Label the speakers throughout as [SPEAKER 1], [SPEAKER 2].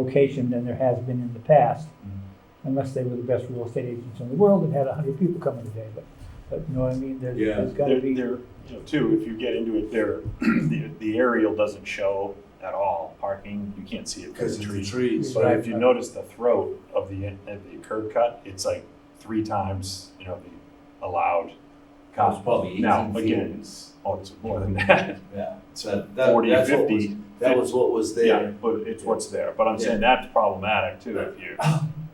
[SPEAKER 1] location than there has been in the past,
[SPEAKER 2] Mm-hmm.
[SPEAKER 1] unless they were the best real estate agents in the world and had a hundred people coming today, but, but you know what I mean? There's,
[SPEAKER 3] Yeah.
[SPEAKER 1] there's gotta
[SPEAKER 4] There,
[SPEAKER 1] be,
[SPEAKER 4] there, you know, too, if you get into it there, the, the aerial doesn't show at all parking, you can't see it from
[SPEAKER 3] Because
[SPEAKER 4] the
[SPEAKER 3] of the
[SPEAKER 4] tree.
[SPEAKER 3] trees.
[SPEAKER 4] But if you notice the throat of the, of the curb cut, it's like three times, you know, the allowed.
[SPEAKER 2] That was probably
[SPEAKER 4] comp. Now,
[SPEAKER 2] 18
[SPEAKER 4] again,
[SPEAKER 2] feet.
[SPEAKER 4] it's, oh, it's more than that,
[SPEAKER 2] Yeah, so that,
[SPEAKER 4] 40,
[SPEAKER 2] that's what
[SPEAKER 4] 50.
[SPEAKER 2] was, that was what was
[SPEAKER 4] yeah,
[SPEAKER 2] there.
[SPEAKER 4] but it's what's there, but I'm saying that's problematic too, if you,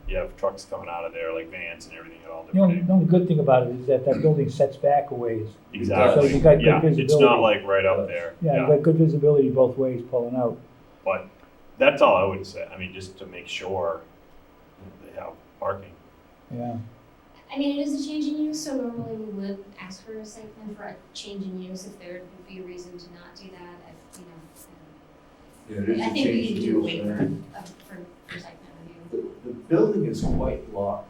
[SPEAKER 4] you have trucks coming out of there, like vans and everything at all
[SPEAKER 1] the only,
[SPEAKER 4] different.
[SPEAKER 1] the only good thing about it is that that building sets back a ways.
[SPEAKER 4] Exactly,
[SPEAKER 1] So you got good
[SPEAKER 4] yeah, it's not
[SPEAKER 1] visibility.
[SPEAKER 4] like right up there,
[SPEAKER 1] Yeah, you've got good visibility both ways pulling out.
[SPEAKER 4] But that's all I would say. I mean, just to make sure they have parking.
[SPEAKER 1] Yeah,
[SPEAKER 5] I mean, it is a change in use, so normally we would ask for a site plan for a change in use if there would be a reason to not do that, if, you know.
[SPEAKER 2] Yeah, it is
[SPEAKER 5] I
[SPEAKER 2] a
[SPEAKER 5] think we
[SPEAKER 2] change
[SPEAKER 5] need
[SPEAKER 2] in
[SPEAKER 5] to do
[SPEAKER 2] use,
[SPEAKER 5] away
[SPEAKER 2] right?
[SPEAKER 5] from, uh, for, for site plan review.
[SPEAKER 2] The, the building is quite large.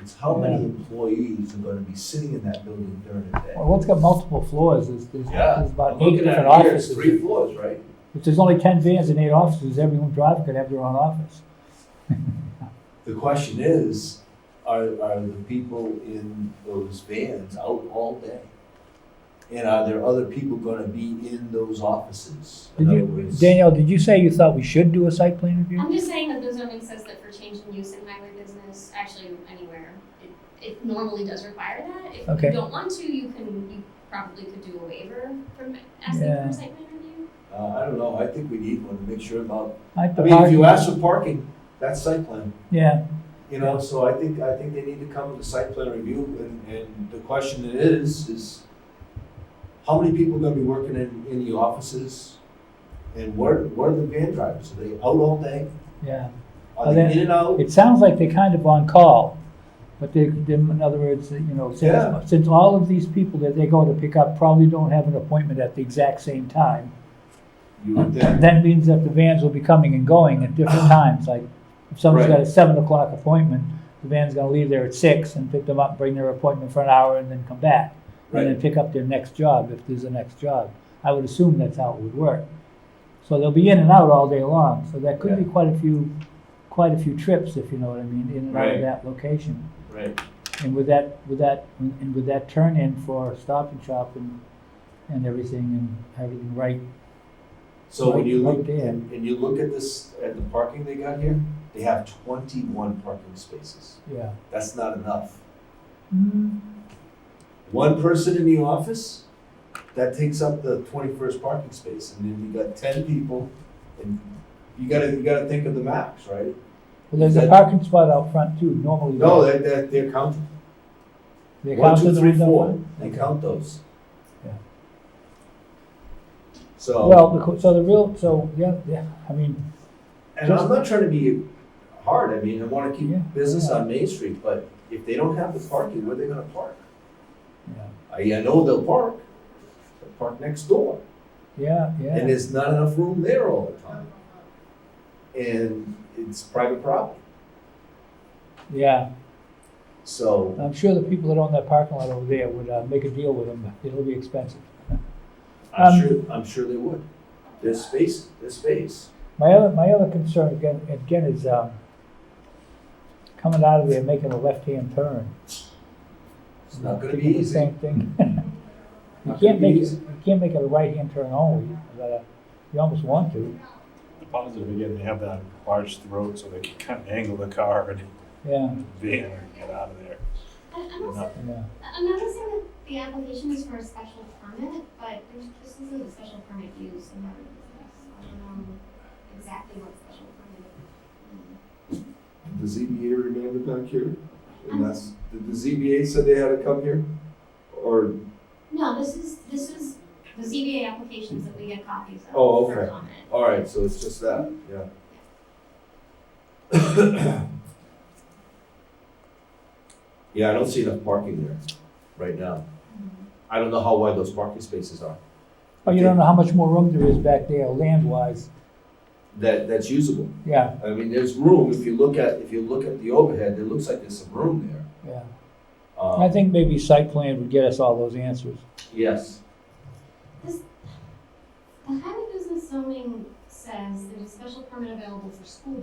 [SPEAKER 2] It's how many employees are gonna be sitting in that building during the day?
[SPEAKER 1] well, it's got multiple floors, there's, there's
[SPEAKER 2] Yeah,
[SPEAKER 1] there's
[SPEAKER 2] I'm
[SPEAKER 1] about eight
[SPEAKER 2] looking
[SPEAKER 1] different
[SPEAKER 2] at here, it's
[SPEAKER 1] offices.
[SPEAKER 2] three floors, right?
[SPEAKER 1] If there's only ten vans and eight offices, every one driver could have their own office.
[SPEAKER 2] The question is, are, are the people in those vans out all day? And are there other people gonna be in those offices? In
[SPEAKER 1] Did
[SPEAKER 2] other
[SPEAKER 1] you,
[SPEAKER 2] words-
[SPEAKER 1] Danielle, did you say you thought we should do a site plan review?
[SPEAKER 5] I'm just saying that the zoning says that for change in use in highway business, actually anywhere, it, it normally does require that. If
[SPEAKER 1] Okay.
[SPEAKER 5] you don't want to, you can, you probably could do a waiver from asking for
[SPEAKER 1] Yeah.
[SPEAKER 5] a site plan review.
[SPEAKER 2] Uh, I don't know, I think we need one to make sure about,
[SPEAKER 1] I
[SPEAKER 2] I mean, if you ask for parking, that's site plan.
[SPEAKER 1] Yeah,
[SPEAKER 2] You know, so I think, I think they need to come with a site plan review and, and the question is, is how many people are gonna be working in, in the offices? And where, where are the van drivers? Are they out all day?
[SPEAKER 1] yeah.
[SPEAKER 2] Are
[SPEAKER 1] Are
[SPEAKER 2] they
[SPEAKER 1] they-
[SPEAKER 2] in and out?
[SPEAKER 1] It sounds like they're kind of on call, but they, they- in other words, you know,
[SPEAKER 2] Yeah.
[SPEAKER 1] since, since all of these people that they're going to pick up probably don't have an appointment at the exact same time,
[SPEAKER 2] You would think,
[SPEAKER 1] that means that the vans will be coming and going at different times, like if someone's got a seven o'clock appointment, the van's gonna leave there at six and pick them up, bring their appointment for an hour and then come back. And
[SPEAKER 2] right,
[SPEAKER 1] then pick up their next job if there's a next job. I would assume that's how it would work. So they'll be in and out all day long, so that could be quite a few, quite a few trips, if you know what I mean, in and out of
[SPEAKER 2] Right.
[SPEAKER 1] that location.
[SPEAKER 2] right.
[SPEAKER 1] And with that, with that, and with that turn in for Stop and Shop and, and everything and everything right,
[SPEAKER 2] So when you
[SPEAKER 1] Right
[SPEAKER 2] look,
[SPEAKER 1] there.
[SPEAKER 2] and, and you look at this, at the parking they got here, they have twenty-one parking spaces.
[SPEAKER 1] yeah.
[SPEAKER 2] That's not enough.
[SPEAKER 1] Mm,
[SPEAKER 2] One person in the office, that takes up the twenty-first parking space, and then you got ten people, and you gotta, you gotta think of the max, right?
[SPEAKER 1] Well, there's a
[SPEAKER 2] That-
[SPEAKER 1] parking spot out front too, normally.
[SPEAKER 2] No, that, that, they're counting,
[SPEAKER 1] They
[SPEAKER 2] one,
[SPEAKER 1] count
[SPEAKER 2] two,
[SPEAKER 1] the
[SPEAKER 2] three,
[SPEAKER 1] ones out
[SPEAKER 2] four,
[SPEAKER 1] front?
[SPEAKER 2] they count those.
[SPEAKER 1] Yeah. Well,
[SPEAKER 2] So,
[SPEAKER 1] the co- so the real, so, yeah, yeah, I mean,
[SPEAKER 2] and I'm not trying to be hard, I mean, I wanna keep
[SPEAKER 1] Yeah,
[SPEAKER 2] business
[SPEAKER 1] yeah.
[SPEAKER 2] on Main Street, but if they don't have the parking, where they gonna park?
[SPEAKER 1] yeah,
[SPEAKER 2] I, I know they'll park, they'll park next door.
[SPEAKER 1] yeah, yeah.
[SPEAKER 2] and there's not enough room there all the time. And it's private property,
[SPEAKER 1] Yeah,
[SPEAKER 2] so,
[SPEAKER 1] I'm sure the people that own that parking lot over there would uh, make a deal with them, but it'll be expensive.
[SPEAKER 2] I'm
[SPEAKER 1] Um,
[SPEAKER 2] sure, I'm sure they would. There's space, there's space.
[SPEAKER 1] My other, my other concern again, again is, um, coming out of there, making a left-hand turn.
[SPEAKER 2] It's not gonna
[SPEAKER 1] Thinking
[SPEAKER 2] be
[SPEAKER 1] the
[SPEAKER 2] easy.
[SPEAKER 1] Same thing. You
[SPEAKER 2] Not gonna
[SPEAKER 1] can't
[SPEAKER 2] be
[SPEAKER 1] make, it-
[SPEAKER 2] easy.
[SPEAKER 1] you can't make it a right-hand turn only, but, uh, you almost want to,
[SPEAKER 4] The positive, again, they have that large throat so they can kind of angle the car and
[SPEAKER 1] yeah,
[SPEAKER 4] van and get out of there.
[SPEAKER 5] I, I'm also
[SPEAKER 1] yeah.
[SPEAKER 5] I'm noticing that the application is for a special permit, but there's, this isn't a special permit used in every business. I don't know exactly what special permit. it
[SPEAKER 2] The ZBA remanded back here, and that's, did the ZBA said they had to come here? Or,
[SPEAKER 5] is. No, this is, this is the ZBA applications that we get copies of.
[SPEAKER 2] Oh,
[SPEAKER 5] for
[SPEAKER 2] okay.
[SPEAKER 5] comment.
[SPEAKER 2] all right, so it's just that, yeah. Yeah, I don't see enough parking there right now.
[SPEAKER 5] Mm-hmm.
[SPEAKER 2] I don't know how wide those parking spaces are,
[SPEAKER 1] Oh, you don't know how much more room there is back there land-wise,
[SPEAKER 2] that, that's usable.
[SPEAKER 1] yeah,
[SPEAKER 2] I mean, there's room, if you look at, if you look at the overhead, it looks like there's some room there.
[SPEAKER 1] yeah.
[SPEAKER 2] Um,
[SPEAKER 1] I think maybe site plan would get us all those answers.
[SPEAKER 2] Yes,
[SPEAKER 5] The highway business zoning s- says there's a special permit available for school